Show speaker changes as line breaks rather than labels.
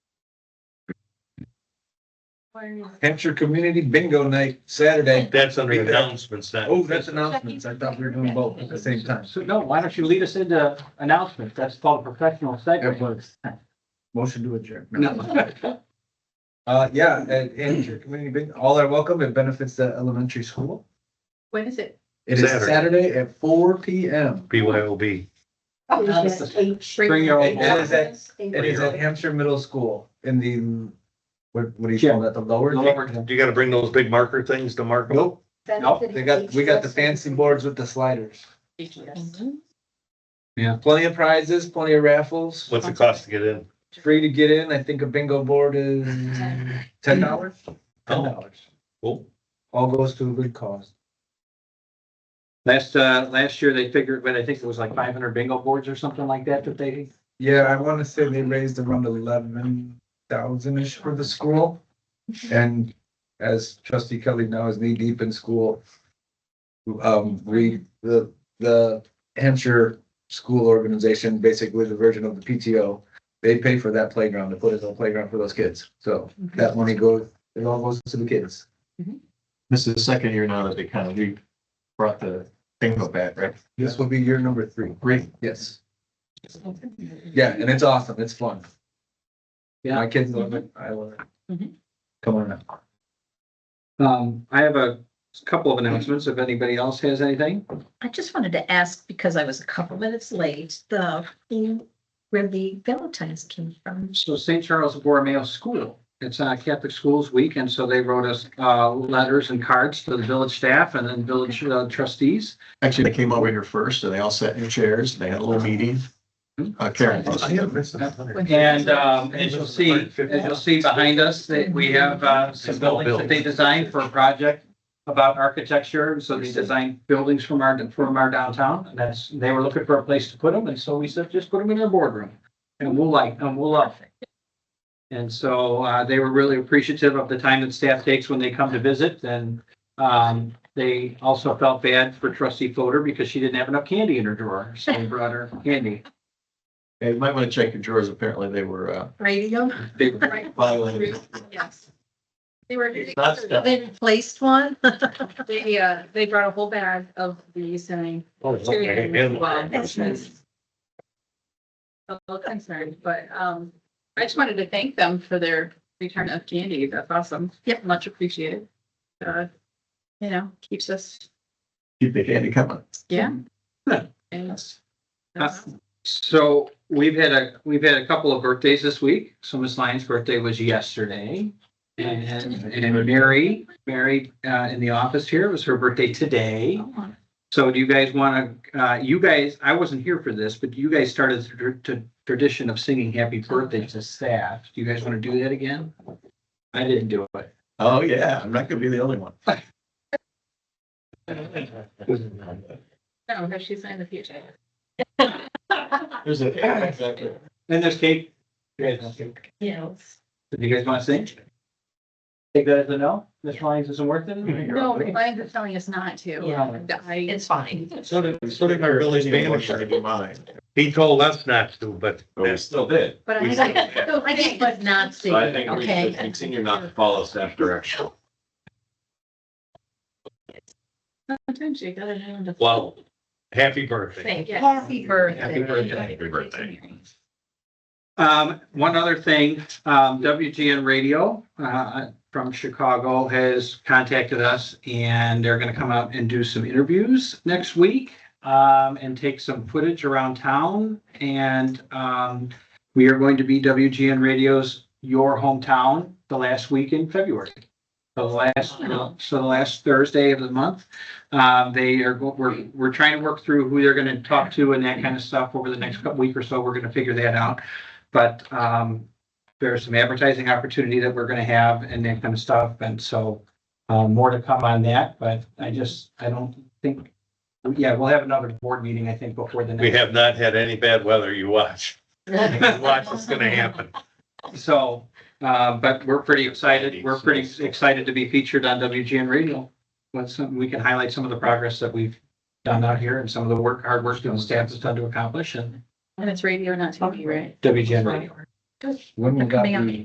Hampshire Community Bingo Night, Saturday.
That's under
Right there.
announcements, not.
Oh, that's announcements. I thought we were doing both at the same time.
So no, why don't you lead us into announcements? That's called a professional segment.
Motion to adjourn.
No.
Uh, yeah, at Hampshire Community Bingo, all are welcome. It benefits the elementary school.
When is it?
It is
Saturday.
Saturday at four P M.
BYOB.
Oh,
Bring your own.
It is at, it
Bring
is
your
at
own.
Hampshire Middle School in the, what, what do you call that, the lower?
Lower.
You gotta bring those big marker things to mark them.
Nope, they got, we got the fancy boards with the sliders. Plenty of prizes, plenty of raffles,
What's it cost to get in?
free to get in. I think a bingo board is ten dollars. Ten dollars.
Cool.
All goes to a good cause.
Last, uh, last year they figured, but I think it was like five hundred bingo boards or something like that that they,
Yeah, I want to say they raised around eleven thousand-ish for the school. And as trustee Kelly now is knee-deep in school, um, we, the, the Hampshire School Organization, basically the version of the PTO, they pay for that playground, to put it on a playground for those kids. So that money goes, it all goes to the kids.
This is the second year now that they kind of, we brought the bingo back, right?
This will be year number three.
Great.
Yes. Yeah, and it's awesome. It's fun.
Yeah.
My kids love it. I love it.
Mhm.
Come on now.
um, I have a couple of announcements if anybody else has anything.
I just wanted to ask, because I was a couple minutes late, the, where the Valentine's came from.
So St. Charles Borromeo School, it's uh, Catholic Schools Week, and so they wrote us uh, letters and cards to the village staff and then village uh, trustees.
Actually, they came over here first and they all sat in chairs. They had a little meeting. Uh, Karen.
Mm-hmm.
And um, as you'll see, as you'll see behind us, that we have uh, some buildings that they designed for a project about architecture, so they designed buildings from our, from our downtown, and that's, they were looking for a place to put them, and so we said, just put them in our boardroom. And we'll like, and we'll love it. And so uh, they were really appreciative of the time that staff takes when they come to visit, and um, they also felt bad for trustee Fodor because she didn't have enough candy in her drawer, so we brought her candy.
Hey, You might want to check your drawers. Apparently they were uh,
Radio?
They-
violated.
Yes. They were,
Not stuff.
they replaced one.
They, uh, they brought a whole bag of these and.
That's
I'm A little concerned, but, um, I just wanted to thank them for their return of candy. That's awesome.
Yep.
Much appreciated. Uh, you know, keeps us,
Keep the candy coming.
yeah.
Yeah.
And.
Uh, So we've had a, we've had a couple of birthdays this week. So Miss Lyons' birthday was yesterday. And, and Mary, Mary, uh, in the office here, it was her birthday today. So do you guys want to, uh, you guys, I wasn't here for this, but you guys started the tr- tr- tradition of singing happy birthday to staff. Do you guys want to do that again? I didn't do it.
Oh, yeah. I'm not going to be the only one.
No, because she's in the future.
There's a, yeah, exactly.
And there's cake. You guys want cake?
Yes.
Do you guys want to sing? Take that as a no? Miss Lyons isn't working?
No, Ryan's just telling us not to.
Yeah.
And I,
It's fine.
So did, so did our village manager to do mine.
He told us not to, but that's
still did.
but I.
We still have.
So
I think, but not see,
So I think we should
okay?
continue not to follow staff direction.
Sometimes you gotta have the.
Well, happy birthday.
Thank you. Happy
Happy
birthday.
birthday.
Happy birthday.
Um, one other thing, um, WGN Radio, uh, from Chicago has contacted us and they're gonna come out and do some interviews next week. Um, and take some footage around town and, um, we are going to be WGN Radio's Your Hometown the last week in February. The last, so the last Thursday of the month. Um, they are, go- we're, we're trying to work through who they're gonna talk to and that kind of stuff over the next couple week or so. We're gonna figure that out. But um, there's some advertising opportunity that we're gonna have and that kind of stuff, and so um, more to come on that, but I just, I don't think, yeah, we'll have another board meeting, I think, before the next.
We have not had any bad weather. You watch. You Watch what's gonna happen.
So, uh, but we're pretty excited, we're pretty excited to be featured on WGN Radio. What's, some- we can highlight some of the progress that we've done out here and some of the work, hard work that the staff has done to accomplish and
And it's radio, not TV, right?
WGN Radio.
When we got
Coming up.
the